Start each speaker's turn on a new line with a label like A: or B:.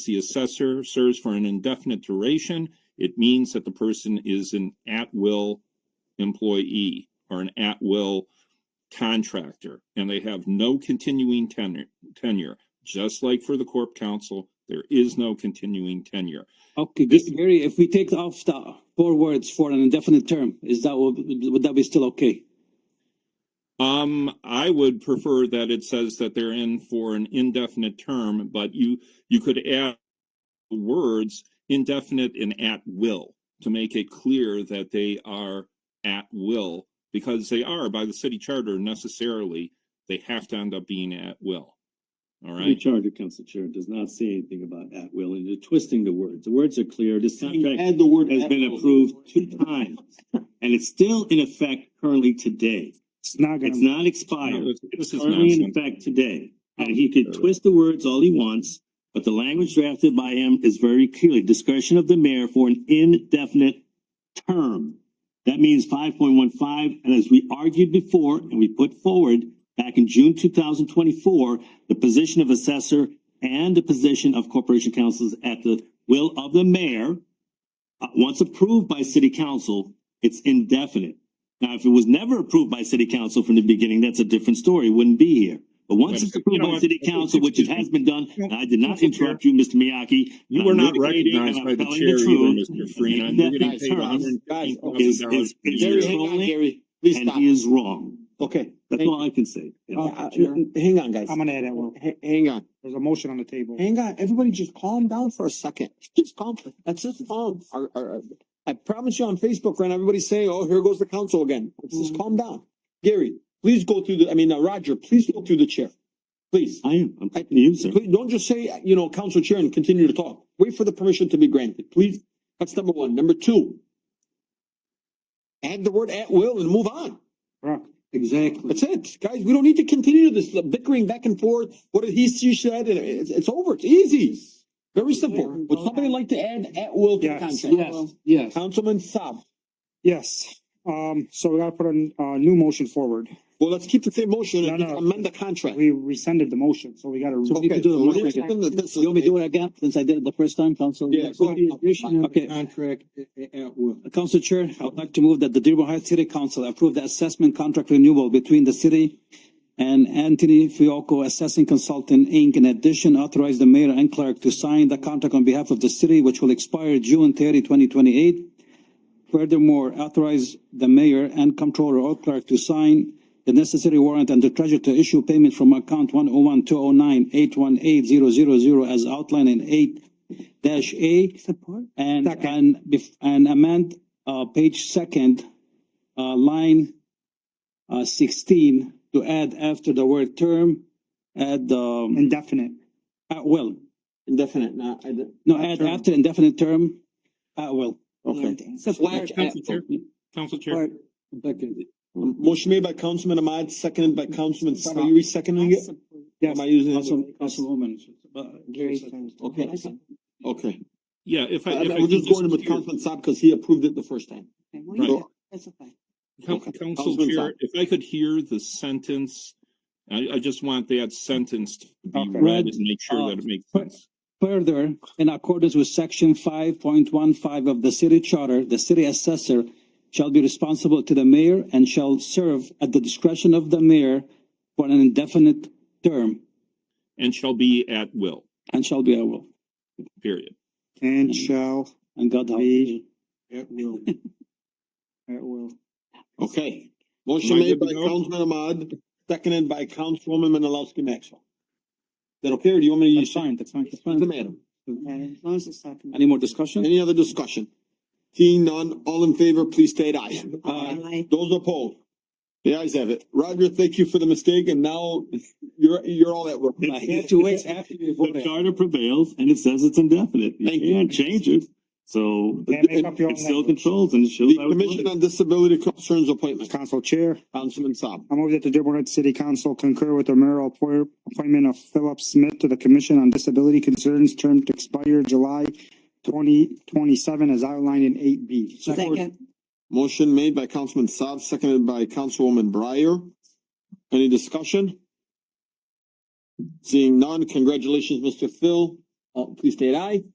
A: the assessor serves for an indefinite duration, it means that the person is an at-will employee or an at-will contractor, and they have no continuing tenure, tenure. Just like for the corp council, there is no continuing tenure.
B: Okay,
A: This-
B: Gary, if we take off the four words for an indefinite term, is that, would, would that be still okay?
A: Um, I would prefer that it says that they're in for an indefinite term, but you, you could add the words indefinite and at will to make it clear that they are at will because they are by the city charter necessarily, they have to end up being at will. All
C: The
A: right,
C: charter, Council Chair, does not say anything about at will, and you're twisting the words. The words are clear. This contract
D: Add the word.
C: has been approved two times, and it's still in effect currently today.
E: It's not
C: It's
E: gonna,
C: not expired.
A: No, this- this
C: It's
A: is
C: currently in
A: nonsense.
C: effect today. And he could twist the words all he wants, but the language drafted by him is very clearly discretion of the mayor for an indefinite term. That means five point one five, and as we argued before and we put forward back in June two thousand twenty-four, the position of assessor and the position of corporation councils at the will of the mayor. uh, once approved by city council, it's indefinite. Now, if it was never approved by city council from the beginning, that's a different story. It Wouldn't be here. But once it's
A: You
C: approved
A: know
C: by
A: what?
C: city council, which it has been done, and I did not interrupt you, Mr. Miyaki.
A: You were
C: I'm
A: not
C: litigating and
A: recognized
C: I'm
A: by the
C: telling
A: chair
C: truth.
A: either, Mr. Freeman. You're getting paid
C: Guys,
A: hundred and
D: guys,
A: fifteen
C: Is,
A: thousand dollars
C: is,
A: a
C: is
D: Gary,
A: year.
D: hang on,
C: trolling,
D: Gary, please
C: and
D: stop.
C: he is wrong.
D: Okay.
C: That's
D: Thank
C: all I can say.
E: Oh,
D: Uh, uh, Hang on, guys.
E: I'm gonna add that one.
D: Ha- Hang on,
E: There's a motion on the table.
D: hang on. Everybody just calm down for a second. Just calm, let's just calm. Our- our- our- I promise you on Facebook, right, now, everybody's saying, oh, here goes the council again. Let's just calm down. Gary, please go through the, I mean, uh, Roger, please go through the chair. Please.
C: I am, I'm talking to you, sir.
D: Please, don't just say, you know, council chair and continue to talk. Wait for the permission to be granted, please. That's number one. Number two. Add the word at will and move on.
E: Correct.
D: Exactly. That's it, guys. We don't need to continue this bickering back and forth. What did he, she said, and it's, it's over. It's easy. Very simple. Would somebody like to add at will to the
E: Yes,
D: contract?
E: yes, yes.
D: Councilman Saab.
E: Yes, um, so we gotta put a, n- a new motion forward.
D: Well, let's keep the same motion and
E: No, no.
D: amend the contract.
E: We rescinded the motion, so we gotta.
B: So we need to do a
D: Okay,
B: motion.
D: so we're gonna- this is-
B: You want me to do it again, since I did it the first time, Council?
D: Yeah, go ahead.
B: Okay.
D: Contract at will.
B: Council Chair, I would like to move that the Dearborn Heights City Council approve the assessment contract renewal between the city and Anthony Fiocco Assessing Consultant, Inc. In addition, authorize the mayor and clerk to sign the contract on behalf of the city, which will expire June 30, 2028. Furthermore, authorize the mayor and comptroller or clerk to sign the necessary warrant and the treasurer to issue payment from account one oh one two oh nine eight one eight zero zero zero as outlined in eight dash A. And, and, bef- and amend, uh, page second, uh, line, uh, sixteen to add after the word term, add, um,
E: Indefinite.
B: at will.
D: Indefinite, no, I did
B: No, add after indefinite term, at will.
D: Okay.
A: Council Chair. Council Chair,
D: Motion made by Councilman Ahmad, seconded by Councilman Saab. Are you reseconding it?
E: Yes.
D: Am I using?
B: Council- Councilwoman. uh,
D: Okay, okay.
A: yeah, if I.
D: I-
A: if I
D: We're
A: could
D: just going with
A: hear-
D: Councilman Saab because he approved it the first time.
A: Right. Coun-
D: Okay.
A: Council
D: Councilman
A: Chair,
D: Saab.
A: if I could hear the sentence, I, I just want that sentence to be
E: Okay.
A: read
B: Read,
A: and make sure that it makes
B: uh,
A: sense.
B: Further, in accordance with section five point one five of the city charter, the city assessor shall be responsible to the mayor and shall serve at the discretion of the mayor for an indefinite term
A: And shall be at will,
B: and shall be a will.
A: period.
E: And shall,
B: And God help.
E: Be-
D: Okay,
E: at will.
D: motion
A: Am I
D: made
A: good to
D: by
A: go?
D: Councilman Ahmad, seconded by Councilwoman Menalowski Maxwell. Is that okay, or do you want me to
B: That's
D: use?
B: fine, that's fine, that's
D: Doesn't
B: fine.
D: matter.
B: Any more discussion?
D: Any other discussion? Seeing none, all in favor, please state aye.
B: Uh, Aye.
D: Those opposed? The ayes have it. Roger, thank you for the mistake, and now you're, you're all at work.
B: I have to wait after you
C: The
B: voted.
C: charter prevails and it says it's indefinite. You
D: Thank you.
C: can't change it. So
E: Can't make up your own
C: it still
E: language.
C: controls and it shows.
D: The
C: how it's voted.
D: Commission on Disability Concerns Appointment,
E: Council Chair,
D: Councilman Saab.
E: I move that the Dearborn Heights City Council concur with the mayoral appoint- appointment of Philip Smith to the Commission on Disability Concerns, term to expire July twenty twenty-seven as outlined in eight B.
F: Second.
D: Motion made by Councilman Saab, seconded by Councilwoman Breyer. Any discussion? Seeing none, congratulations, Mr. Phil. All, please state aye.